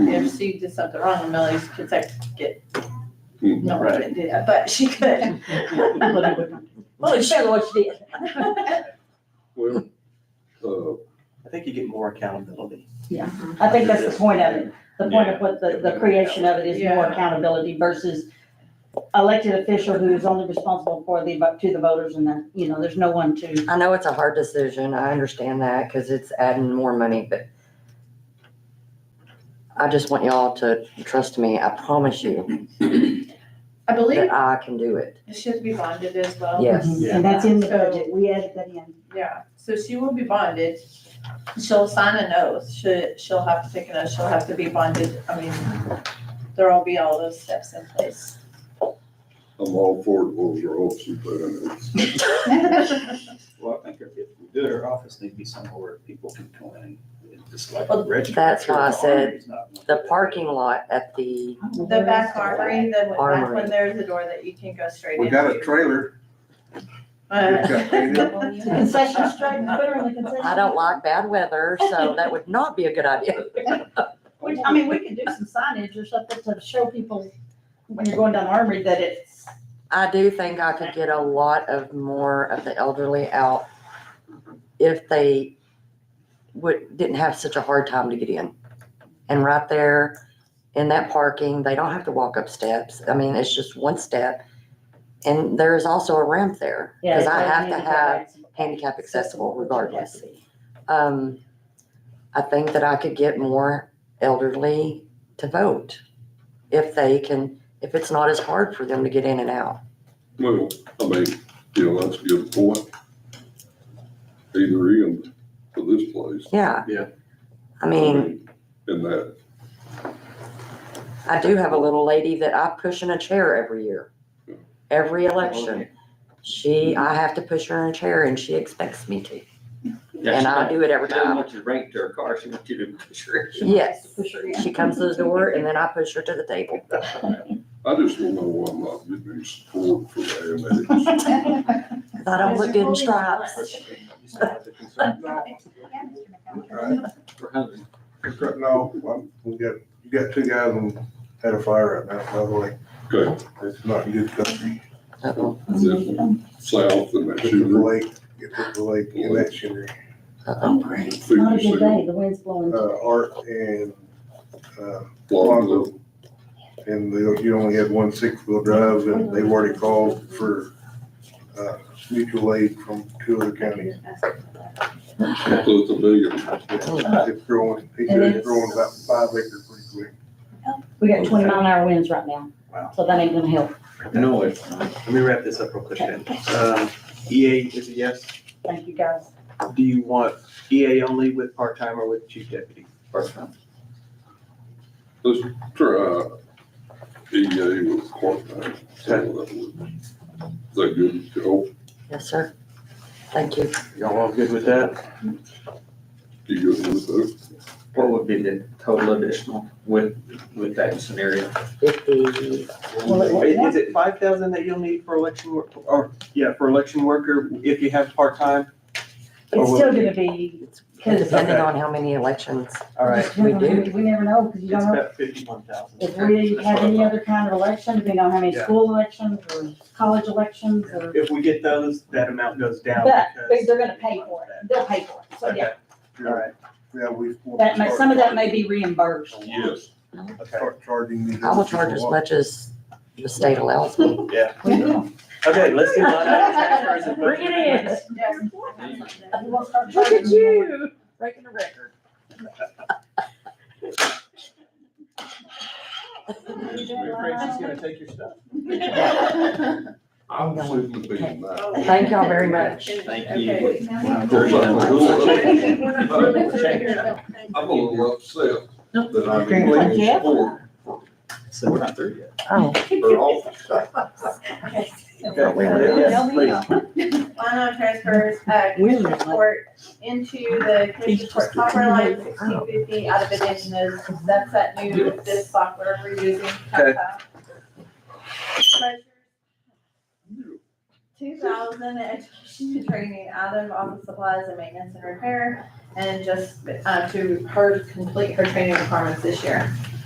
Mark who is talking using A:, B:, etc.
A: if she did something wrong, and Millie's could say, get,
B: Hmm,
A: no, I
B: right.
A: didn't do that, but she could.
C: Well, it's better what you did.
B: Well, uh,
D: I think you get more accountability.
C: I think that's the point of it. The point of what the, the creation of it is more accountability versus elected official who is only responsible for the, vo- to the voters and that, you know, there's no one to.
E: I know it's a hard decision. I understand that because it's adding more money, but I just want y'all to trust me. I promise you
A: I believe
E: that I can do it.
A: it should be bonded as well.
E: Yes.
C: And that's in the budget. We added that in.
A: Yeah, so she will be bonded. She'll sign an oath. She, she'll have to take an oath. She'll have to be bonded. I mean, there'll be all those steps in place.
B: I'm all for it, what was your hopes you put in it?
D: Well, I think if if we do it, our office needs to be somewhere where people can come in and just like
A: Well,
D: register.
E: that's why I
D: The
E: said
D: armory's not-
E: The parking lot at the,
A: The back armory, then when- that's
E: Armory.
A: when there's a door that you can go straight into.
B: We got a trailer. We've got paid
A: Uh,
B: up.
C: Concession stripe, put her in the concession.
E: I don't like bad weather, so that would not be a good idea.
C: Which, I mean, we could do some signage or something to show people when you're going down Armory that it's,
E: I do think I could get a lot of more of the elderly out if they would, didn't have such a hard time to get in. And right there in that parking, they don't have to walk up steps. I mean, it's just one step. And there is also a ramp there,
C: yeah.
E: because I
C: it's
E: have to
C: handicap
E: have
C: accessible.
E: handicap accessible
C: which
E: regardless
C: it has to be.
E: um, I think that I could get more elderly to vote if they can, if it's not as hard for them to get in and out.
B: Well, I mean, you know, that's a good point. Either end for this place.
E: Yeah.
D: Yeah.
E: I mean,
B: In that,
E: I do have a little lady that I push in a chair every year, every
F: Oh,
E: election. She, I have to push her in a chair and she expects me to,
F: Yeah,
E: and
F: she
E: I
F: don't-
E: do it every
F: She doesn't
E: time.
F: want you to bring it to her car, she wants you to push her.
E: Yes,
C: Push her in.
E: she comes to the door and then I push her to the table.
B: I just don't know why I'm not getting any support for the annex.
E: I don't look good in stripes.
D: You still have to concern-
F: We're hungry.
G: No, I'm- we got, you got two guys on, had a fire right now, by the way.
B: Okay.
G: It's not in good country.
E: Uh-oh,
B: Then South and that
G: Get to the
B: shooter.
G: lake, get to the lake, and that shooter,
E: uh-oh.
C: It's not a good day. The wind's blowing.
G: uh, Art and, uh,
B: Lonzo.
G: Lonzo. And they, you only had one six-wheel drive, and they've already called for, uh, mutual aid from two other counties.
B: So it's a million.
G: It's growing, he said it's growing about five acres pretty quick.
C: We got twenty mile an hour winds right now,
D: Wow.
C: so that ain't gonna help.
D: Noise. Let me wrap this up real quick then. Um, EA is a yes.
C: Thank you, guys.
D: Do you want EA only with part-time or with chief deputy?
F: First round.
B: Let's try EA E with part-time. Is that good? Oh,
E: Yes, sir. Thank you.
D: Y'all all good with that?
B: you good with that?
F: What would be the total additional with, with that scenario?
E: Fifty,
C: Well, it-
D: Is is it five thousand that you'll need for election work, or, yeah, for election worker if you have part-time? Or
C: It's
D: will-
C: still gonna be, cause
E: depending
D: Okay.
E: on how many elections.
D: All right,
C: we never- we never know, cause you
D: it's
C: don't know
D: about fifty-one thousand.
C: if we have any other kind of election, depending on how many
D: Yeah.
C: school elections or college elections or.
D: If we get those, that amount goes down
C: But, but
D: because.
C: they're gonna pay for it. They'll pay for it. So yeah,
D: Okay, all right,
G: Yeah, we.
C: that may, some of that may be reimbursed.
B: Yes.
D: okay,
G: Start charging these.
E: I will charge as much as the state allows me.
D: yeah.
C: We will.
D: Okay, let's do line item transfers and budget
C: Bring it in.
D: amendments.
C: We won't start charging more.
E: Breaking a record.
D: Rachel's gonna take your stuff.
B: I'm sitting there now.
E: Thank y'all very much.
F: Thank
A: Okay.
F: you.
B: I'm a little upset that I'm
E: Okay.
B: playing
E: Yeah.
B: sport
F: So we're not through yet.
E: Oh,
B: or office.
D: Okay,
E: Wait, wait,
D: yes, please.
A: Line transfers, uh,
C: We're
A: commission
C: not-
A: report into the commission report software line sixteen fifty out of addition is, that's that new, this software we're using.
D: Okay.
A: Two thousand education and training out of office supplies and maintenance and repair and just, uh, to her complete her training requirements this year.